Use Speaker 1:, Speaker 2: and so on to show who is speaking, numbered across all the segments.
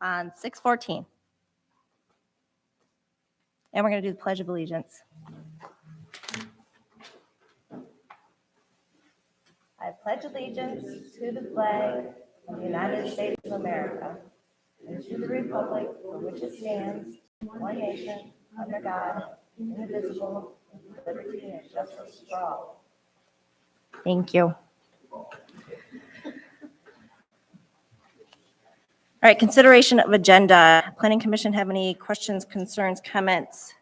Speaker 1: on 614. And we're going to do the Pledge of Allegiance. I pledge allegiance to the flag of the United States of America and to the republic for which it stands, one nation, under God, indivisible, with liberty and justice for all. Thank you. All right, consideration of agenda. Planning Commission have any questions, concerns, comments?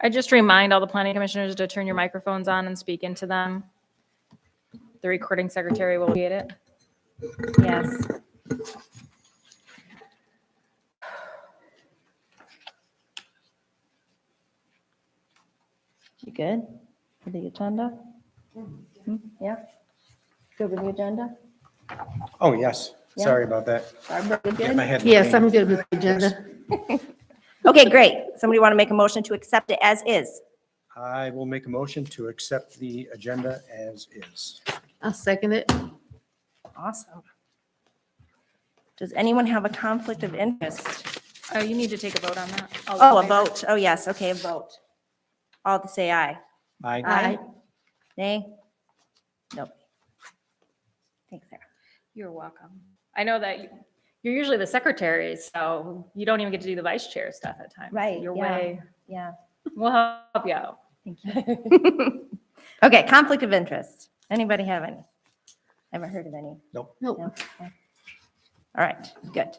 Speaker 2: I just remind all the planning commissioners to turn your microphones on and speak into them. The recording secretary will get it.
Speaker 1: Yes. You good with the agenda? Hmm, Yeah? Good with the agenda?
Speaker 3: Oh, yes.
Speaker 1: Yeah.
Speaker 3: Sorry about that.
Speaker 1: Barbara, you
Speaker 3: Get my
Speaker 1: good?
Speaker 3: head in the
Speaker 4: Yes,
Speaker 3: game.
Speaker 4: I'm good with the agenda.
Speaker 1: Okay, great. Somebody want to make a motion to accept it as is?
Speaker 3: I will make a motion to accept the agenda as is.
Speaker 4: I'll second it.
Speaker 1: Awesome. Does anyone have a conflict of interest?
Speaker 2: Oh, you need to take a vote on that.
Speaker 1: Oh, a vote. Oh, yes. Okay, a vote. All to say aye.
Speaker 3: I,
Speaker 1: Aye. Nay? Nope. Thanks, Sarah.
Speaker 2: You're welcome. I know that you- you're usually the secretary, so you don't even get to do the vice chair stuff at times.
Speaker 1: Right,
Speaker 2: You're
Speaker 1: yeah.
Speaker 2: way,
Speaker 1: Yeah,
Speaker 2: we'll help you out.
Speaker 1: thank you. Okay, conflict of interest. Anybody have any? Haven't heard of any.
Speaker 3: nope,
Speaker 4: Nope.
Speaker 1: No? Okay. All right, good.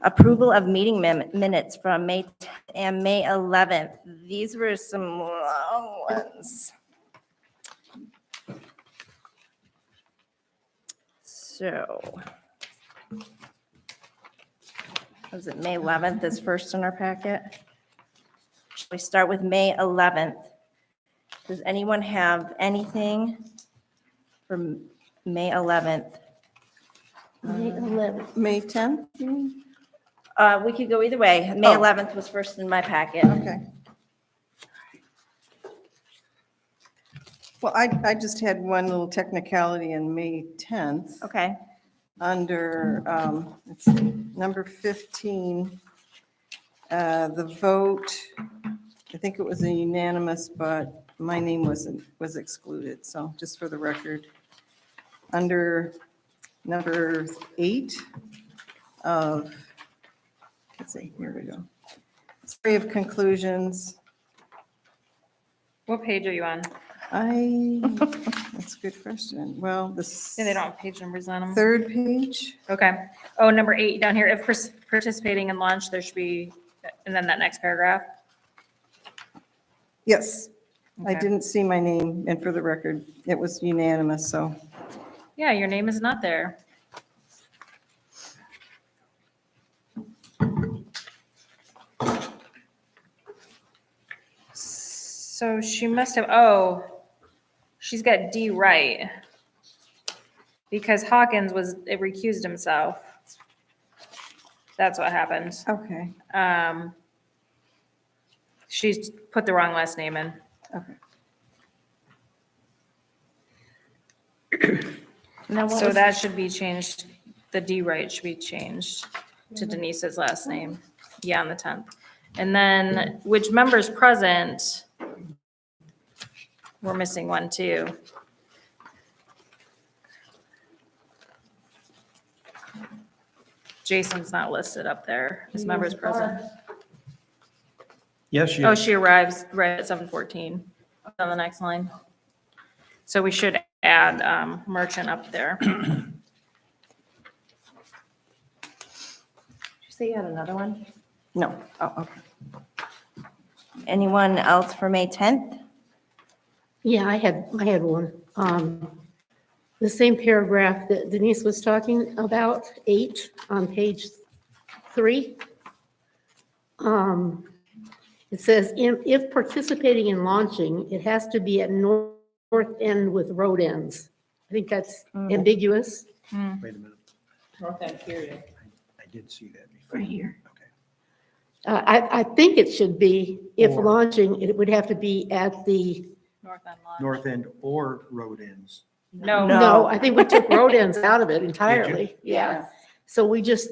Speaker 1: Approval of meeting min- minutes from May 10th and May 11th. These were some long ones. So. Was it May 11th is first in our packet? Shall We start with May 11th. Does anyone have anything from May 11th?
Speaker 4: May 11th. May 10th?
Speaker 1: Uh, we could go either way. May
Speaker 4: Oh.
Speaker 1: 11th was first in my packet.
Speaker 5: Okay. Well, I, I just had one little technicality in May 10th,
Speaker 1: Okay,
Speaker 5: under, um, let's see, number 15, uh, the vote, I think it was a unanimous, but my name wasn't, was excluded, so just for the record. Under number eight of, let's see, here we go. Three of conclusions.
Speaker 2: What page are you on?
Speaker 5: I, that's a good question. Well, this.
Speaker 2: Yeah, They don't have page numbers on them.
Speaker 5: Third page,
Speaker 2: Okay. Oh, number eight down here, if pers- participating in lunch, there should be, and then that next paragraph.
Speaker 5: yes. I
Speaker 2: Okay.
Speaker 5: didn't see my name, and for the record, it was unanimous, so.
Speaker 2: Yeah, your name is not there. So she must have, oh, she's got D right. Because Hawkins was, it recused himself. That's what happened.
Speaker 5: Okay,
Speaker 2: Um, she's put the wrong last name in.
Speaker 5: okay.
Speaker 1: now what
Speaker 2: So
Speaker 1: was,
Speaker 2: that should be changed, the D right should be changed to Denise's last name, yeah, on the tenth. And then which members present? We're missing one too. Jason's not listed up there, his members present.
Speaker 3: yes,
Speaker 2: Oh,
Speaker 3: yes.
Speaker 2: she arrives right at seven fourteen on the next line. So we should add um, merchant up there.
Speaker 1: did you say you had another one?
Speaker 5: No, oh, okay.
Speaker 1: Anyone else for May 10th?
Speaker 4: Yeah, I had, I had one. Um, The same paragraph that Denise was talking about, eight on page three. Um, It says, "If if participating in launching, it has to be at nor- north end with road ends." I think that's ambiguous.
Speaker 3: Wait a minute. I did see that before.
Speaker 4: Right here.
Speaker 3: Okay.
Speaker 4: Uh, I, I think it should be, if
Speaker 3: Or-
Speaker 4: launching, it would have to be at the,
Speaker 2: North End Lodge.
Speaker 3: North end or road ends.
Speaker 2: No.
Speaker 1: No.
Speaker 4: no, I think we took road ends out of it entirely.
Speaker 5: Yeah.
Speaker 4: Yeah. So we just,